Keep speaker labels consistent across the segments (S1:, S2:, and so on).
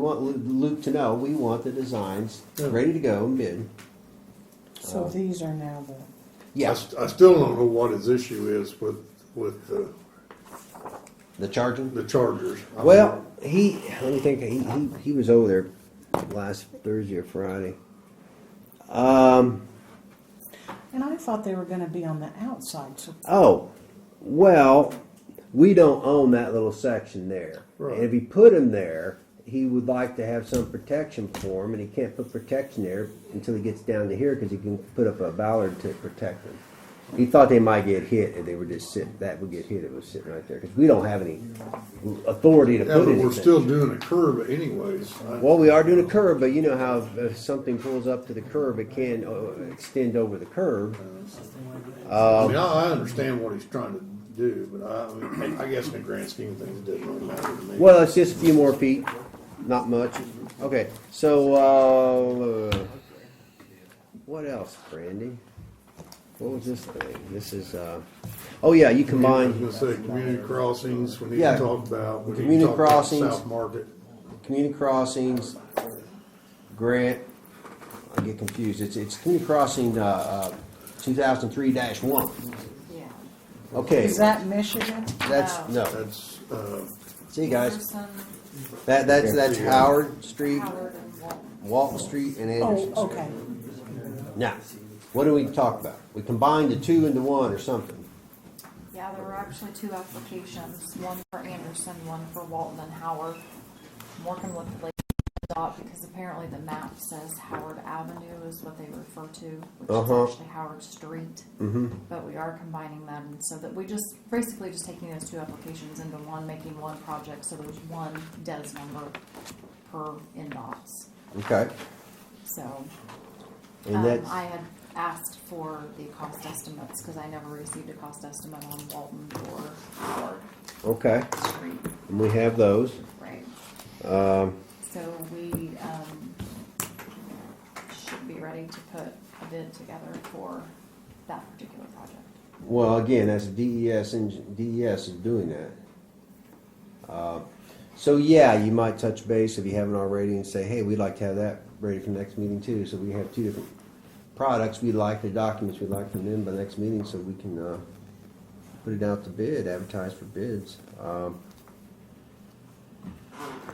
S1: We want Lu- Luke to know, we want the designs ready to go, bid.
S2: So these are now the,
S3: I,
S1: Yeah,
S3: st- Uh, I still don't know what his issue is with, with the,
S1: the charging.
S3: the Chargers. I
S1: Well, he, let me think, he, he, he was over there last Thursday or Friday. Um,
S2: and I thought they were gonna be on the outside, so
S1: oh, well, we don't own that little section there. And if
S3: Right.
S1: he put him there, he would like to have some protection for him, and he can't put protection there until he gets down to here, cause he can put up a bollard to protect him. He thought they might get hit if they were just sitting, that would get hit, if it was sitting right there, cause we don't have any authority to
S3: Yeah,
S1: put
S3: but
S1: anything.
S3: we're still doing a curve anyways. I-
S1: Well, we are doing a curb, but you know how if something pulls up to the curb, it can uh, extend over the curb.
S3: I mean, I, I understand what he's trying to do, but I, I mean, I guess in the grand scheme of things, it doesn't really matter to me.
S1: Well, it's just a few more feet, not much. Okay, so, uh, what else, Brandy? What was this thing? This is, uh, oh yeah, you
S3: I was
S1: combine
S3: gonna say, community crossings, we need
S1: Yeah.
S3: to talk about. we need to
S1: Community
S3: talk about
S1: crossings.
S3: South Market.
S1: community crossings, grant, I get confused. It's, it's community crossing, uh, uh, two thousand three dash one.
S4: Yeah.
S1: Okay,
S2: is that Michigan?
S1: that's, no.
S3: That's, uh,
S1: See you guys.
S4: Anderson,
S1: That, that's, that's
S3: Yeah.
S1: Howard Street,
S4: Howard, and Walton.
S1: Walton Street, and
S2: Oh,
S1: Anderson Street.
S2: okay,
S1: Now, what do we talk about? We combined the two into one or something.
S4: Yeah, there were actually two applications, one for Anderson, one for Walton and Howard. I'm Working with the lady dot because apparently the map says Howard Avenue is what they refer to, which
S1: Uh-huh. Mm-hmm.
S4: is actually Howard Street. But we are combining them so that we just, basically just taking those two applications into one, making one project, so there's one DES number per inbox.
S1: Okay.
S4: So
S1: And
S4: Um,
S1: that's,
S4: I had asked for the cost estimates, because I never received a cost estimate on Walton or Howard
S1: okay,
S4: Street,
S1: and we have those.
S4: right?
S1: Um,
S4: So we, um, should be ready to put a bid together for that particular project.
S1: well, again, that's E DES, and DES is doing that. Uh, So yeah, you might touch base if you haven't already and say, hey, we'd like to have that ready for next meeting too. So we have two different products we'd like, the documents we'd like from them by next meeting so we can, uh, put it out to bid, advertise for bids. Um,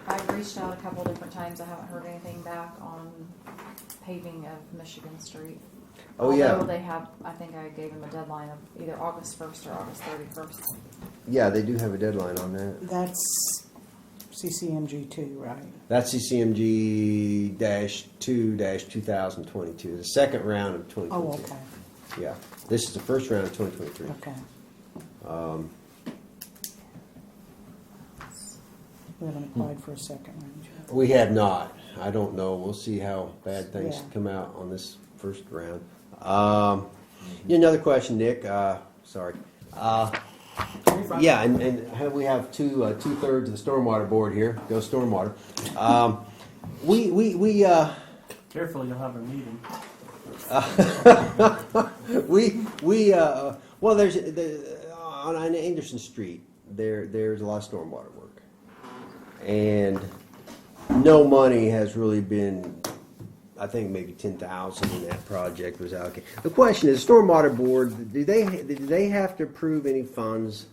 S4: I've reached out a couple different times, I haven't heard anything back on paving of Michigan Street.
S1: Oh, yeah.
S4: Although they have, I think I gave them a deadline of either August first or August thirty-first.
S1: Yeah, they do have a deadline on that.
S2: that's CCMG two, right?
S1: That's CCMG dash two dash two thousand twenty-two, the second round of twenty
S2: Oh,
S1: twenty-two.
S2: okay,
S1: Yeah, this is the first round of twenty twenty-three.
S2: okay. We haven't applied for a second round yet.
S1: We have not. I don't know. We'll see how bad things
S2: Yeah.
S1: come out on this first round. Um, yeah, another question, Nick. Uh, sorry. Uh, yeah, and, and have- we have two uh, two thirds of the stormwater board here. Go stormwater. Um, we we we. Uh,
S5: Careful, you'll have a meeting.
S1: we we uh, well there's the, on on Anderson Street there there's a lot of stormwater work, and no money has really been. I think maybe ten thousand in that project was allocated. The question is, stormwater board, do they do they have to approve any funds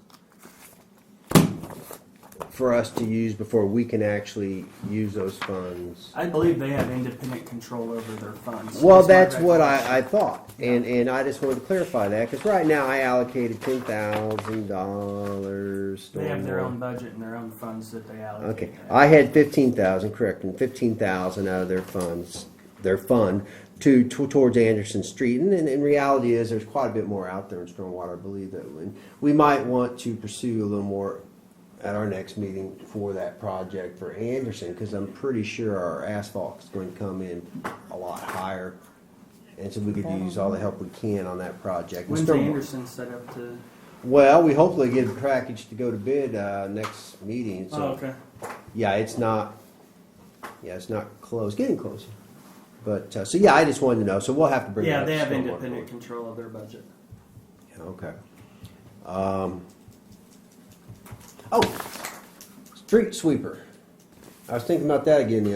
S1: for us to use before we can actually use those funds?
S5: I believe they have independent control over their funds.
S1: Well,
S5: my
S1: that's what
S5: recollection.
S1: I, I thought, and, and I just wanted to clarify that, because right now I allocated ten thousand dollars.
S5: They have their own budget and their own funds that they allocate.
S1: Okay, I had fifteen thousand, correct, and fifteen thousand out of their funds, their fund, to, to, towards Anderson Street, and, and, and reality is, there's quite a bit more out there in stormwater, I believe that, and we might want to pursue a little more at our next meeting for that project for Anderson, because I'm pretty sure our asphalt's going to come in a lot higher, and so we could use all the help we can on that project. And
S5: When's
S1: stormwater-
S5: Anderson set up to?
S1: Well, we hopefully get a package to go to bid, uh, next meeting, so.
S5: Oh, okay.
S1: Yeah, it's not. Yeah, it's not close. Getting closer. But uh, so yeah, I just wanted to know. So we'll have to bring. that
S5: Yeah, they
S1: up
S5: have
S1: to stormwater
S5: independent
S1: board.
S5: control of their budget.
S1: Yeah, okay. Um, oh, street sweeper. I was thinking about that again the